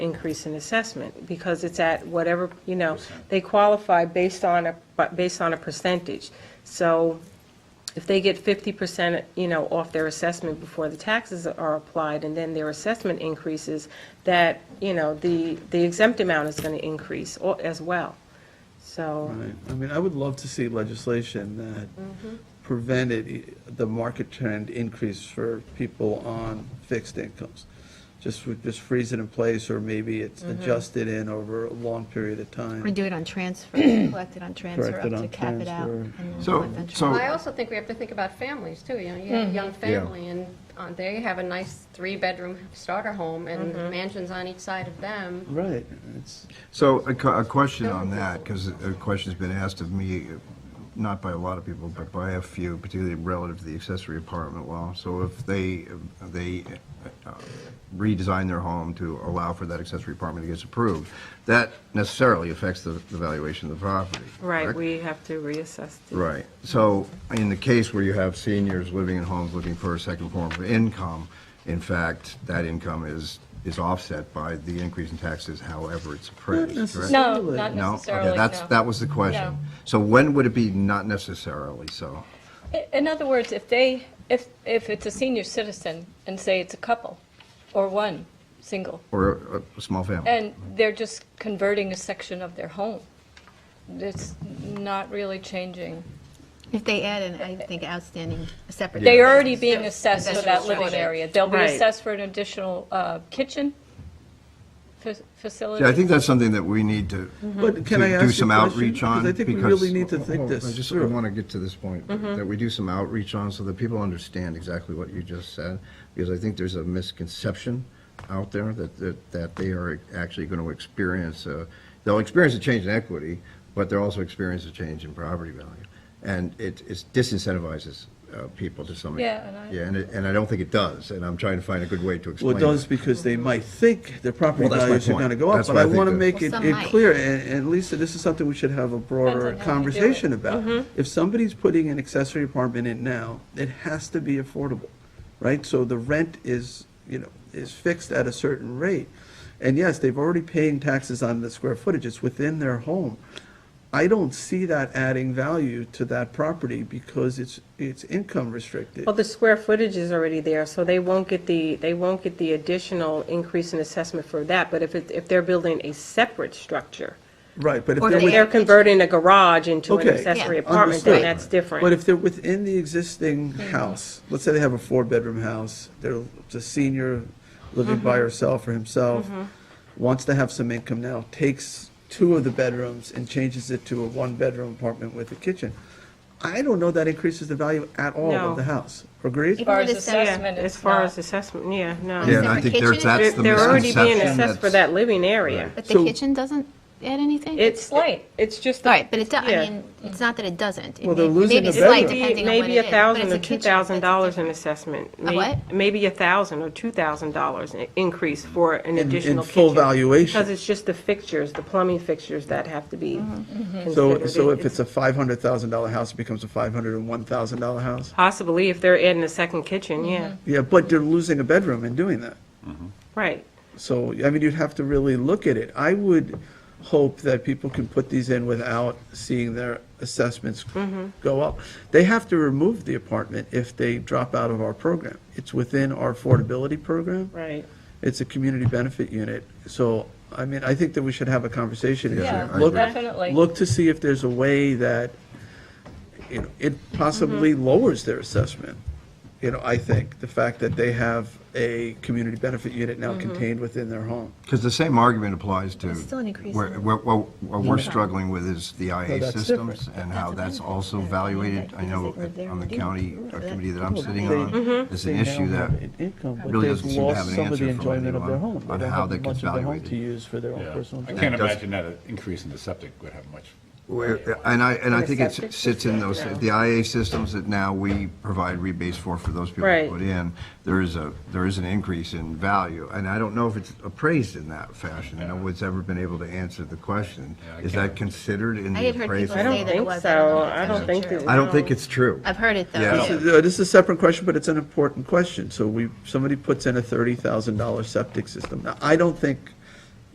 increase in assessment, because it's at whatever, you know, they qualify based on a, but based on a percentage. So if they get 50%, you know, off their assessment before the taxes are applied, and then their assessment increases, that, you know, the, the exempt amount is going to increase al- as well, so. Right. I mean, I would love to see legislation that prevented i- the market trend increase for people on fixed incomes. Just, would just freeze it in place, or maybe it's adjusted in over a long period of time. Or do it on transfer, collect it on transfer, Collect up it to on cap it out. transfer. and then So- collect on so- transfer. I also think we have to think about families, too, you know, you have a young family, and uh, they have a nice three-bedroom starter home, and mansions on each side of them. Right, it's, So a cu- a question on that, because a question's been asked of me, not by a lot of people, but by a few, particularly relative to the accessory apartment law. So if they, they uh, redesign their home to allow for that accessory apartment that gets approved, that necessarily affects the the valuation of the property. Right, correct? we have to reassess. the- Right. So in the case where you have seniors living in homes looking for a second form of income, in fact, that income is, is offset by the increase in taxes however it's appraised, correct? necessarily. No, not No? No? Okay, necessarily, that's- no. That was the question. No. So when would it be not necessarily so? I- In other words, if they, if, if it's a senior citizen and say it's a couple or one, single, Or a- a small family? and they're just converting a section of their home, it's not really changing. If they add in, I think outstanding, a separate. They're already being assessed for that Accessory living structure. area. They'll be Right. assessed for an additional uh, kitchen fa- facility. See, I think that's something that we need to Mm-hmm. but to can I ask you a do some question? outreach on. Because I think we because- really need to think Hold on, I this just through. Mm-hmm. want to get to this point, that we do some outreach on so that people understand exactly what you just said, because I think there's a misconception out there that, that, that they are actually going to experience, a- they'll experience a change in equity, but they'll also experience a change in property value. And it, it disincentivizes uh, people to some Yeah, and I- Yeah, and, it- and I don't think it does, and I'm trying to find a good way to explain Well, it. it does because they might think their property Well, that's my values are point. going to go up, That's but what I I think want to that- make it Well, some it might. clear, and and Lisa, this is something we should have a broader Depends on how you do it. Mm-hmm. conversation about. If somebody's putting an accessory apartment in now, it has to be affordable, right? So the rent is, you know, is fixed at a certain rate. And yes, they've already paying taxes on the square footage, it's within their home. I don't see that adding value to that property because it's, it's income restricted. Well, the square footage is already there, so they won't get the, they won't get the additional increase in assessment for that. But if it, if they're building a separate structure, Right, but if Or they're they with- they're converting a garage into an Okay. accessory Yeah. apartment, then Understood. that's different. But if they're within the existing house, let's say they have a four-bedroom house, they're a senior living by herself or himself, wants to have some income now, takes two of the bedrooms and changes it to a one-bedroom apartment with a kitchen. I don't know that increases the value at all No. of the house. Agreed? If- As far Even as with assessment, Yeah, assessment, as it's far not. as assessment, yeah, no. Yeah, and I Separate think there's, kitchen? They're that's the they're already misconception. being assessed for that's- that living area. But the So- kitchen doesn't add anything? It's, Slight. it's just. All right, but it, do- yeah. I mean, it's not that it doesn't. It Well, they're may- losing maybe a it's slight bedroom. depending on what Maybe it a is, but thousand it's or a kitchen, two thousand that's dollars in different. assessment. A what? Maybe a thousand or two thousand dollars increase for an in additional kitchen. full valuation. Because it's just the fixtures, the plumbing fixtures that have to be Mm-hmm. considered. So, so It- if it's a $500,000 house, it becomes a $501,000 house? Possibly, if they're adding a second kitchen, yeah, Mm-hmm. Yeah, but they're losing a bedroom in doing that. right. So, I mean, you'd have to really look at it. I would hope that people can put these in without seeing their assessments go up. They have to remove the apartment if they drop out of our program. It's within our affordability program. Right. It's a community benefit unit. So, I mean, I think that we should have a conversation. Yeah, I Look- agree. definitely. Look to see if there's a way that, you know, it possibly Mm-hmm. lowers their assessment. You know, I think, the fact that they have a community benefit unit now Mm-hmm. contained within their home. Because the same argument applies to. It's still an increase where- in- where- where- What we're struggling with is the IA that's systems and how That's that's a benefit. also Yeah, evaluated. yeah, I know because they live there on the and do it. county uh, Right. committee that I'm sitting They- Mm-hmm. on, Mm-hmm. there's They an now issue have that, an income, but really they've doesn't seem to have lost an some of answer the from enjoyment of their anyone home. They on don't how have that gets much of their home valuated. to use for their own Yeah, personal. I enjoyment. can't That does- imagine that an increase in the septic would have much. where- and I, and I think Septic it sits in those, system, no. the IA systems that now we provide rebates for, for those people Right. who put in, there is a, there is an increase in value. And I don't know if it's appraised in that fashion. No one's ever been able to answer the question. Yeah, I Is can't- that considered in I the had heard appraisal? people I don't say that it think was. so. know if I it's don't actually think true. it- I don't think it's true. I've heard it, though. Yeah. This is, uh, this is a separate question, but it's an important question. So we, somebody puts in a thirty thousand dollar septic system. Now, I don't think